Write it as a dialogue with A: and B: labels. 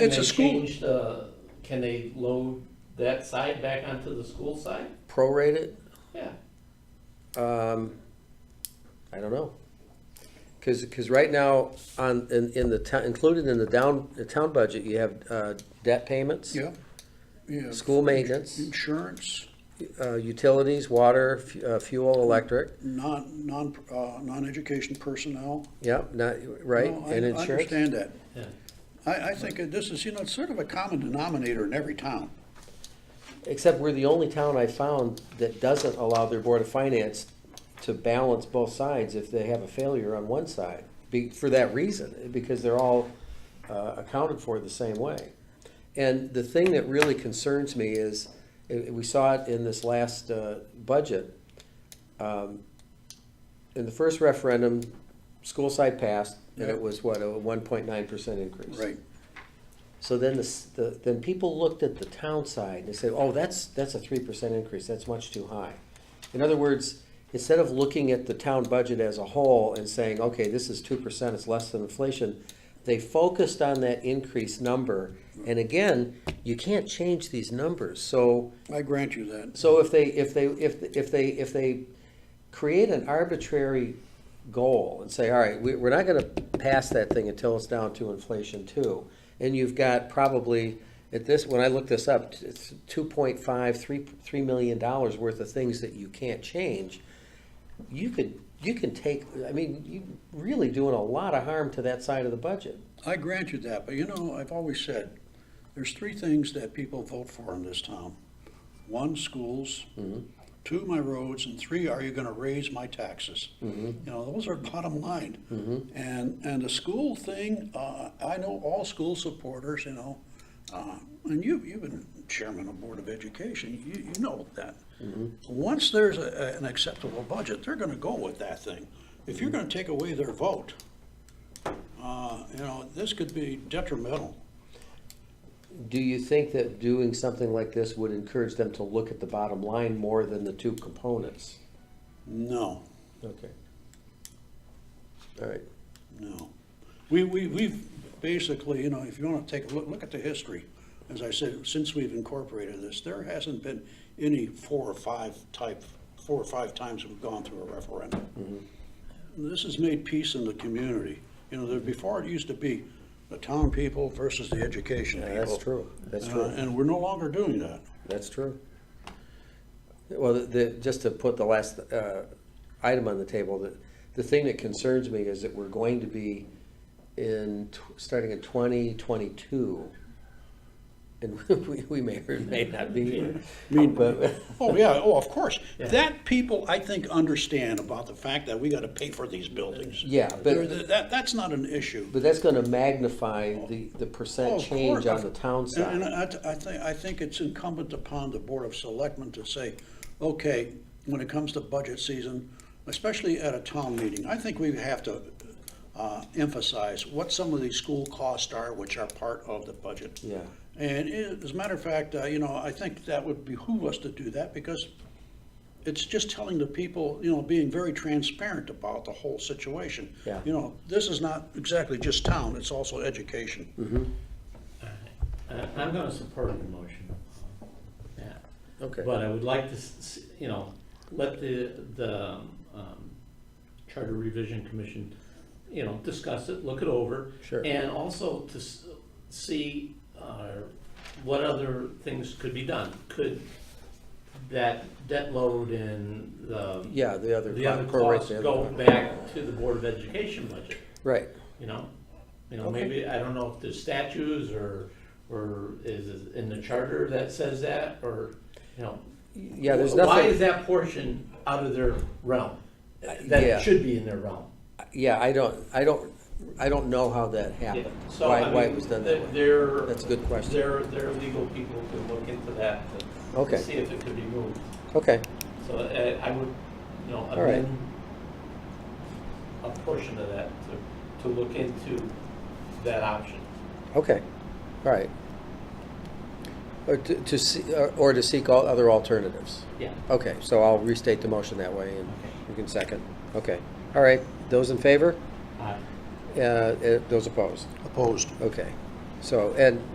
A: Can
B: It's a
A: they
B: school.
A: change the- Can they load that side back onto the school side?
B: prorate it?
A: Yeah.
B: Um, I don't know. Cause, 'cause right now, on, in, in the town, included in the down, the town budget, you have, uh, debt payments.
C: Yeah, yeah.
B: School maintenance,
C: Insurance,
B: uh, utilities, water, fu- uh, fuel, electric,
C: non, non, uh, non-education personnel.
B: yeah, not, right,
C: No, I-
B: and
C: I
B: insurance.
C: understand that.
A: Yeah.
C: I, I think that this is, you know, it's sort of a common denominator in every town.
B: Except we're the only town I found that doesn't allow their board of finance to balance both sides if they have a failure on one side, be, for that reason, because they're all, uh, accounted for the same way. And the thing that really concerns me is, eh, we saw it in this last, uh, budget. Um, In the first referendum, school side passed, and
C: Yeah.
B: it was what, a one point nine percent increase?
C: Right.
B: So then the s the, then people looked at the town side and they said, oh, that's, that's a three percent increase, that's much too high. In other words, instead of looking at the town budget as a whole and saying, okay, this is two percent, it's less than inflation, they focused on that increased number. And again, you can't change these numbers, so.
C: I grant you that.
B: So if they, if they, if, if they, if they create an arbitrary goal and say, all right, we, we're not gonna pass that thing until it's down to inflation too. And you've got probably, at this, when I looked this up, it's two point five, three, three million dollars worth of things that you can't change. You could, you can take, I mean, you really doing a lot of harm to that side of the budget.
C: I grant you that, but you know, I've always said, there's three things that people vote for in this town. One, schools. Two, my roads, and three, are you gonna raise my taxes? You know, those are bottom line. And, and the school thing, uh, I know all school supporters, you know, uh, and you, you've been chairman of Board of Education, you, you know that. Once there's a, a- an acceptable budget, they're gonna go with that thing. If you're gonna take away their vote, uh, you know, this could be detrimental.
B: Do you think that doing something like this would encourage them to look at the bottom line more than the two components?
C: No,
B: Okay. All right,
C: no. We, we, we've basically, you know, if you want to take a look, look at the history, as I said, since we've incorporated this, there hasn't been any four or five type, four or five times we've gone through a referendum.
B: Mm-hmm.
C: This has made peace in the community. You know, there, before it used to be the town people versus the education
B: Yeah,
C: people.
B: that's true. That's
C: Uh,
B: true.
C: And we're no longer doing that.
B: that's true. Well, the- the, just to put the last uh, item on the table, the, the thing that concerns me is that we're going to be in, tw- starting in twenty twenty-two. And we, we may or may not be here. Mean, but,
C: Oh, yeah, oh, of course. That people, I think, understand about the fact that we gotta pay for these buildings.
B: Yeah, but-
C: They're- That, that's not an issue.
B: but that's gonna magnify the, the
C: Oh,
B: percent
C: of
B: change
C: course.
B: on the town
C: And-
B: side.
C: And I, I think, I think it's incumbent upon the Board of Selectmen to say, okay, when it comes to budget season, especially at a town meeting, I think we have to uh, emphasize what some of these school costs are, which are part of the budget.
B: Yeah.
C: And it- as a matter of fact, uh, you know, I think that would behoove us to do that because it's just telling the people, you know, being very transparent about the whole situation.
B: Yeah.
C: You know, this is not exactly just town, it's also education.
A: I- I'm going to support the motion. Yeah.
B: Okay.
A: But I would like to, s- s- you know, let the, the um, Charter Revision Commission, you know, discuss it, look it over.
B: Sure.
A: And also to s- see uh, what other things could be done. Could that debt load and the.
B: Yeah, the other.
A: The other
B: prorate
A: costs
B: the other
A: go
B: one.
A: back to the Board of Education budget,
B: Right.
A: you know? You know,
B: Okay.
A: maybe, I don't know if there's statutes or, or is it in the charter that says that, or, you know?
B: Yeah, there's
A: Why
B: nothing. Uh,
A: is that portion out of their realm?
B: yeah.
A: That should be in their realm.
B: Yeah, I don't, I don't, I don't know how that happened.
A: So, I
B: Why,
A: mean,
B: why it was done that way.
A: Their,
B: That's a good question.
A: their, their legal people could look into that to.
B: Okay.
A: See if it could be moved.
B: Okay,
A: So uh, I would, you know,
B: right.
A: amend a portion of that to, to look into that option.
B: okay, all right. Or to, to see, or- or to seek all other alternatives.
A: Yeah.
B: Okay, so I'll restate the motion that way and you can second. Okay, all right, those in favor,
A: Aye.
B: uh, uh, those opposed?
C: Opposed.
B: Okay, so, and